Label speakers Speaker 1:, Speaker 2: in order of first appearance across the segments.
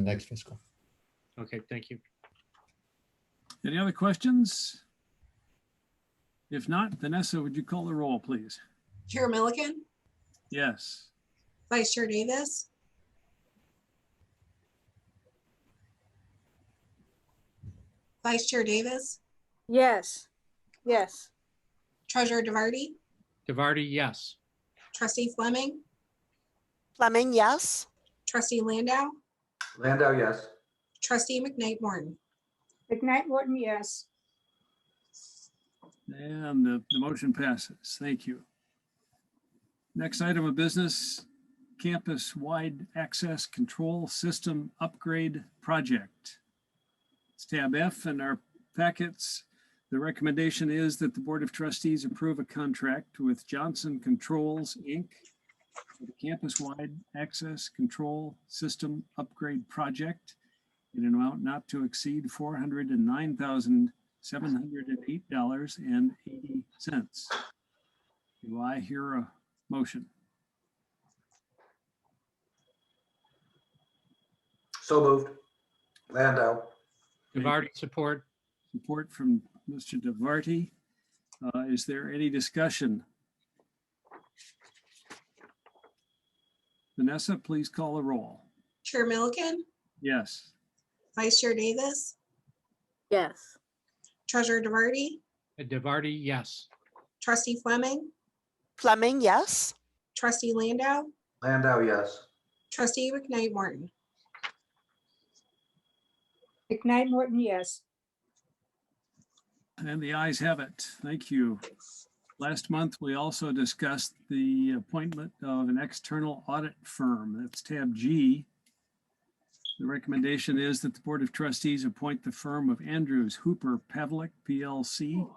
Speaker 1: next fiscal.
Speaker 2: Okay, thank you.
Speaker 3: Any other questions? If not, Vanessa, would you call the roll, please?
Speaker 4: Chair Milliken,
Speaker 3: Yes.
Speaker 4: Vice Chair Davis, Vice Chair Davis,
Speaker 5: Yes, yes,
Speaker 4: Treasurer DeVarty,
Speaker 2: DeVarty, yes.
Speaker 4: Trustee Fleming,
Speaker 6: Fleming, yes.
Speaker 4: Trustee Landau,
Speaker 7: Landau, yes.
Speaker 4: Trustee McKnight Morton.
Speaker 5: McKnight Morton, yes.
Speaker 3: And the, the motion passes. Thank you. Next item of business, campus-wide access control system upgrade project. It's tab F in our packets. The recommendation is that the Board of Trustees approve a contract with Johnson Controls, Inc. for the Campus-wide access control system upgrade project in an amount not to exceed four hundred and nine thousand seven hundred and eight dollars and eighty cents. Do I hear a motion?
Speaker 7: So moved. Landau,
Speaker 2: DeVarty, support.
Speaker 3: Support from Mr. DeVarty. Uh, Is there any discussion? Vanessa, please call the roll.
Speaker 4: Chair Milliken,
Speaker 3: Yes.
Speaker 4: Vice Chair Davis,
Speaker 5: Yes.
Speaker 4: Treasurer DeVarty,
Speaker 2: DeVarty, Uh, yes.
Speaker 4: Trustee Fleming,
Speaker 6: Fleming, yes.
Speaker 4: Trustee Landau,
Speaker 7: Landau, yes.
Speaker 4: Trustee McKnight Morton.
Speaker 5: McKnight Morton, yes.
Speaker 3: And the ayes have it. Thank you. Last month, we also discussed the appointment of an external audit firm. That's tab G. The recommendation is that the Board of Trustees appoint the firm of Andrews Hooper Pavlik PLC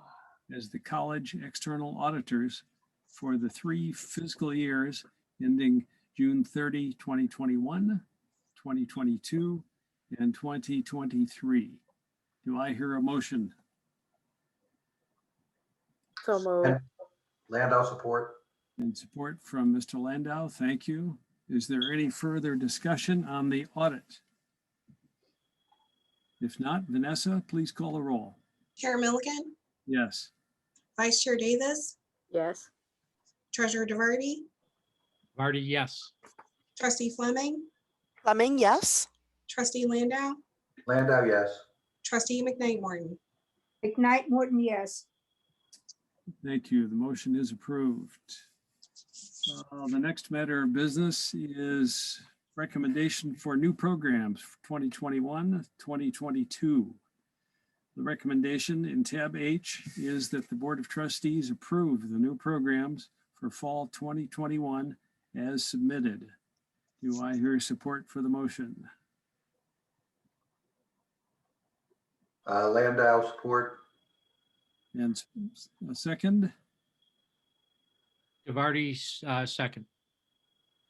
Speaker 3: as the college external auditors for the three fiscal years ending June 30, 2021, 2022, and 2023. Do I hear a motion?
Speaker 5: So moved.
Speaker 7: Landau, support.
Speaker 3: And support from Mr. Landau. Thank you. Is there any further discussion on the audit? If not, Vanessa, please call the roll.
Speaker 4: Chair Milliken,
Speaker 3: Yes.
Speaker 4: Vice Chair Davis,
Speaker 5: Yes.
Speaker 4: Treasurer DeVarty,
Speaker 2: DeVarty, yes.
Speaker 4: Trustee Fleming,
Speaker 6: Fleming, yes.
Speaker 4: Trustee Landau,
Speaker 7: Landau, yes.
Speaker 4: Trustee McKnight Morton.
Speaker 5: McKnight Morton, yes.
Speaker 3: Thank you. The motion is approved. Uh, The next matter of business is recommendation for new programs for 2021, 2022. The recommendation in tab H is that the Board of Trustees approve the new programs for fall 2021 as submitted. Do I hear support for the motion?
Speaker 7: Uh, Landau, support.
Speaker 3: And s- s- a second?
Speaker 2: DeVarty, uh, second.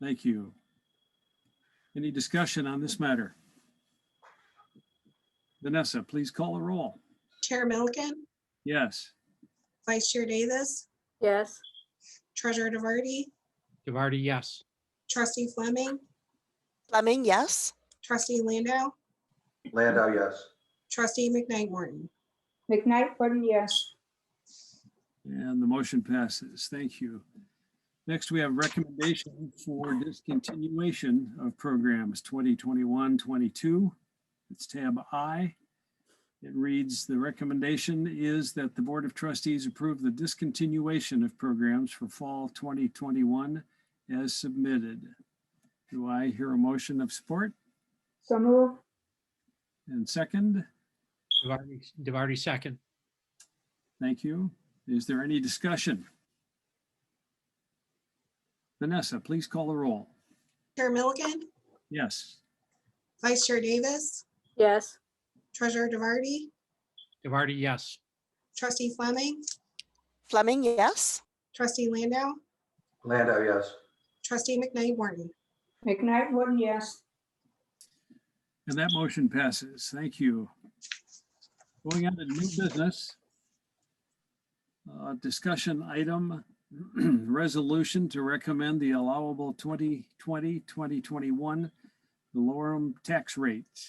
Speaker 3: Thank you. Any discussion on this matter? Vanessa, please call the roll.
Speaker 4: Chair Milliken,
Speaker 3: Yes.
Speaker 4: Vice Chair Davis,
Speaker 5: Yes.
Speaker 4: Treasurer DeVarty,
Speaker 2: DeVarty, yes.
Speaker 4: Trustee Fleming,
Speaker 6: Fleming, yes.
Speaker 4: Trustee Landau,
Speaker 7: Landau, yes.
Speaker 4: Trustee McKnight Morton.
Speaker 5: McKnight Morton, yes.
Speaker 3: And the motion passes. Thank you. Next, we have recommendation for discontinuation of programs 2021, 22. It's tab I. It reads, the recommendation is that the Board of Trustees approve the discontinuation of programs for fall 2021 as submitted. Do I hear a motion of support?
Speaker 5: So moved.
Speaker 3: And second,
Speaker 2: DeVarty, DeVarty, second.
Speaker 3: thank you. Is there any discussion? Vanessa, please call the roll.
Speaker 4: Chair Milliken,
Speaker 3: Yes.
Speaker 4: Vice Chair Davis,
Speaker 5: Yes.
Speaker 4: Treasurer DeVarty,
Speaker 2: DeVarty, yes.
Speaker 4: Trustee Fleming,
Speaker 6: Fleming, yes.
Speaker 4: Trustee Landau,
Speaker 7: Landau, yes.
Speaker 4: Trustee McKnight Morton.
Speaker 5: McKnight Morton, yes.
Speaker 3: And that motion passes. Thank you. Going on to new business. Uh, Discussion item, resolution to recommend the allowable 2020, 2021 the lorem tax rate.